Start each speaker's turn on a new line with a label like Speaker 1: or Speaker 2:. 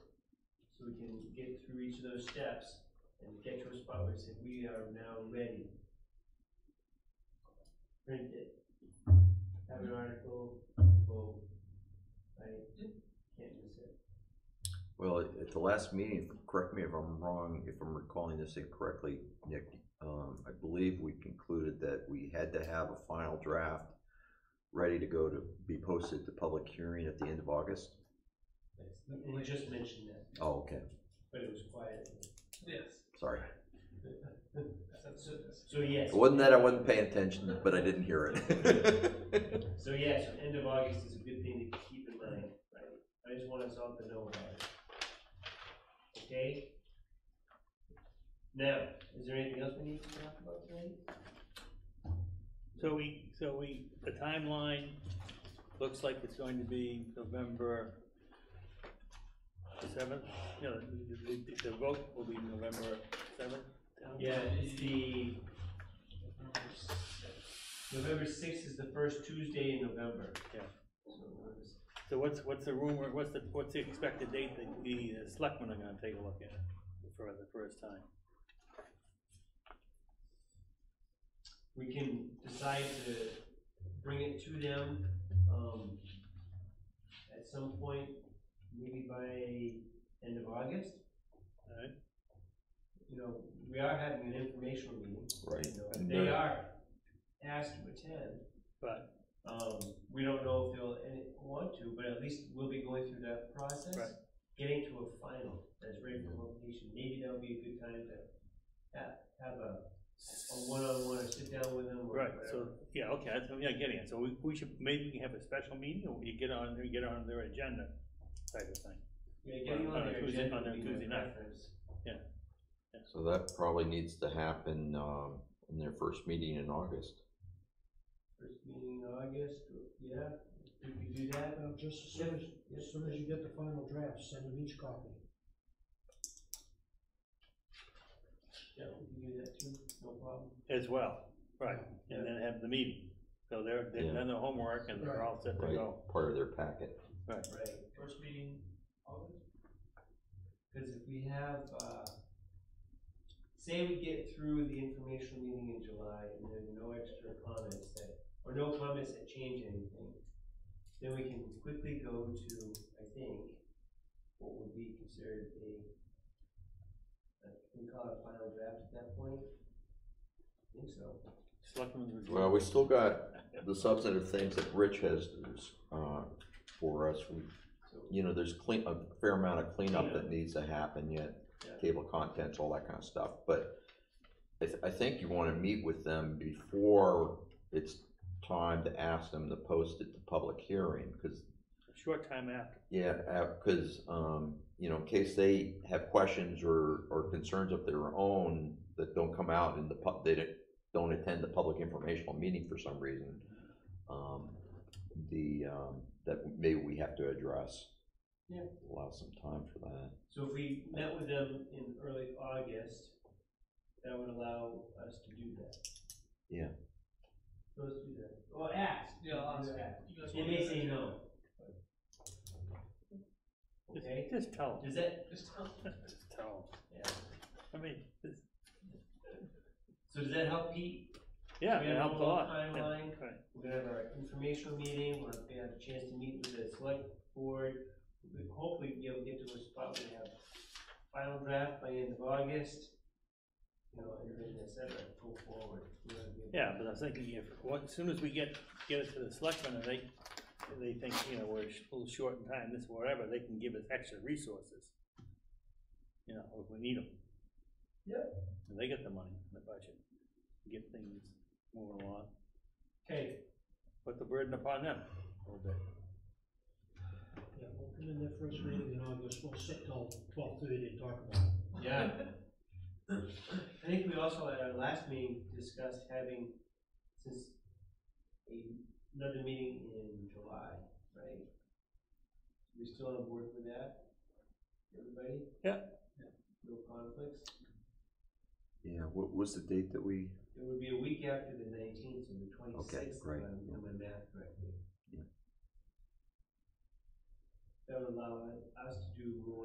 Speaker 1: and get through each of those steps and get to a spot where we say, we are now ready. Print it. Have an article, boom, right? Can't miss it.
Speaker 2: Well, at the last meeting, correct me if I'm wrong, if I'm recalling this incorrectly, Nick, um, I believe we concluded that we had to have a final draft ready to go to be posted to public hearing at the end of August.
Speaker 1: That's- We we just mentioned that,
Speaker 2: Oh, okay,
Speaker 1: but it was quiet.
Speaker 3: Yes.
Speaker 2: sorry.
Speaker 1: So, so yes.
Speaker 2: It wasn't that I wasn't paying attention, but I didn't hear it.
Speaker 1: So yeah, so end of August is a good thing to keep in mind, right? I just want us all to know about it. Okay? Now, is there anything else we need to talk about tonight?
Speaker 4: So we, so we, the timeline looks like it's going to be November the seventh? No, the, the, the vote will be November seventh?
Speaker 1: Yeah, it's the. November sixth is the first Tuesday in November.
Speaker 4: Yeah.
Speaker 1: So November sixth.
Speaker 4: So what's, what's the rumor, what's the, what's the expected date that the uh, selectmen are gonna take a look at for the first time?
Speaker 1: We can decide to bring it to them, um, at some point, maybe by end of August.
Speaker 4: Alright,
Speaker 1: you know, we are having an informational meeting,
Speaker 2: Right.
Speaker 1: you know, if
Speaker 2: And
Speaker 1: they
Speaker 2: the-
Speaker 1: are asked to attend.
Speaker 4: but,
Speaker 1: Um, we don't know if they'll any, want to, but at least we'll be going through that process.
Speaker 4: Right.
Speaker 1: Getting to a final that's ready for publication, maybe that'll be a good time to have, have a, a one-on-one, or sit down with them or
Speaker 4: right,
Speaker 1: whatever.
Speaker 4: so, yeah, okay, that's, yeah, I get it, so we, we should, maybe we can have a special meeting, or you get on, you get on their agenda type of thing.
Speaker 1: Yeah, getting
Speaker 4: on
Speaker 1: on
Speaker 4: a
Speaker 1: their
Speaker 4: Tuesday-
Speaker 1: agenda
Speaker 4: on a
Speaker 1: would be my
Speaker 4: Tuesday night.
Speaker 1: preference.
Speaker 2: So that probably needs to happen, um, in their first meeting in August.
Speaker 1: First meeting in August, yeah, we could do that.
Speaker 5: Uh, just as soon as, as soon as you get the final draft, send them each copy.
Speaker 1: Yeah, we could do that too, no problem.
Speaker 4: As well, right, and then have the meeting, so they're, they've done their homework and they're all set to
Speaker 2: Right,
Speaker 4: go.
Speaker 2: part of their packet.
Speaker 1: Right, first meeting, August? Because if we have, uh, say we get through the informational meeting in July and there's no extra comments that, or no comments that change anything, then we can quickly go to, I think, what would be considered a, a- we call it a final draft at that point? I think so.
Speaker 4: Selectmen's review.
Speaker 2: Well, we still got the substantive things that Rich has, uh, for us. We-
Speaker 1: So,
Speaker 2: You know, there's clean, a fair amount of cleanup that needs to happen yet,
Speaker 1: Yeah.
Speaker 2: table contents, all that kind of stuff, but I, th- I think you wanna meet with them before it's time to ask them to post it to public hearing, cause,
Speaker 4: Short time after,
Speaker 2: yeah, uh, cause, um, you know, in case they have questions or, or concerns of their own that don't come out in the pub, they don't- don't attend the public informational meeting for some reason, um, the, um, that maybe we have to address.
Speaker 1: Yeah.
Speaker 2: Allow some time for that.
Speaker 1: So if we met with them in early August, that would allow us to do that.
Speaker 2: Yeah.
Speaker 1: Let's do that, well, ask.
Speaker 3: Yeah, I'll ask.
Speaker 1: Ask.
Speaker 3: You guys
Speaker 1: They
Speaker 3: want
Speaker 1: may
Speaker 3: to-
Speaker 1: say no.
Speaker 4: just,
Speaker 1: Okay,
Speaker 4: just tell them,
Speaker 1: does that,
Speaker 3: Just tell
Speaker 4: just tell
Speaker 1: yeah,
Speaker 4: them, I mean, just,
Speaker 1: so does that help Pete?
Speaker 4: yeah,
Speaker 1: We
Speaker 4: it
Speaker 1: have a
Speaker 4: helped a
Speaker 1: whole
Speaker 4: lot.
Speaker 1: timeline.
Speaker 4: Right.
Speaker 1: We're gonna have our informational meeting, we're gonna have a chance to meet with the select board. We- Hopefully, we'll be able to get to a spot where we have final draft by end of August. You know, and then et cetera, go forward. We're gonna be able to-
Speaker 4: Yeah, but I was thinking if, once, as soon as we get, get it to the selectmen and they, they think, you know, we're sh- a little short in time, this, whatever, they can give us extra resources. You know, if we need them.
Speaker 1: Yep.
Speaker 4: And they get the money in the budget, get things moving along,
Speaker 1: Okay,
Speaker 4: put the burden upon them a little bit.
Speaker 5: Yeah, we'll put in their first meeting in August, we'll sit till twelve thirty and talk about it.
Speaker 1: Yeah. I think we also at our last meeting discussed having, since a- another meeting in July, right? We still on board with that? Everybody?
Speaker 4: Yeah.
Speaker 1: No conflicts?
Speaker 2: Yeah, what was the date that we?
Speaker 1: It would be a week after the nineteenth, so the twenty-sixth, if
Speaker 2: right,
Speaker 1: I'm
Speaker 2: yeah.
Speaker 1: doing my math correctly.
Speaker 2: Yeah.
Speaker 1: That would allow us to do more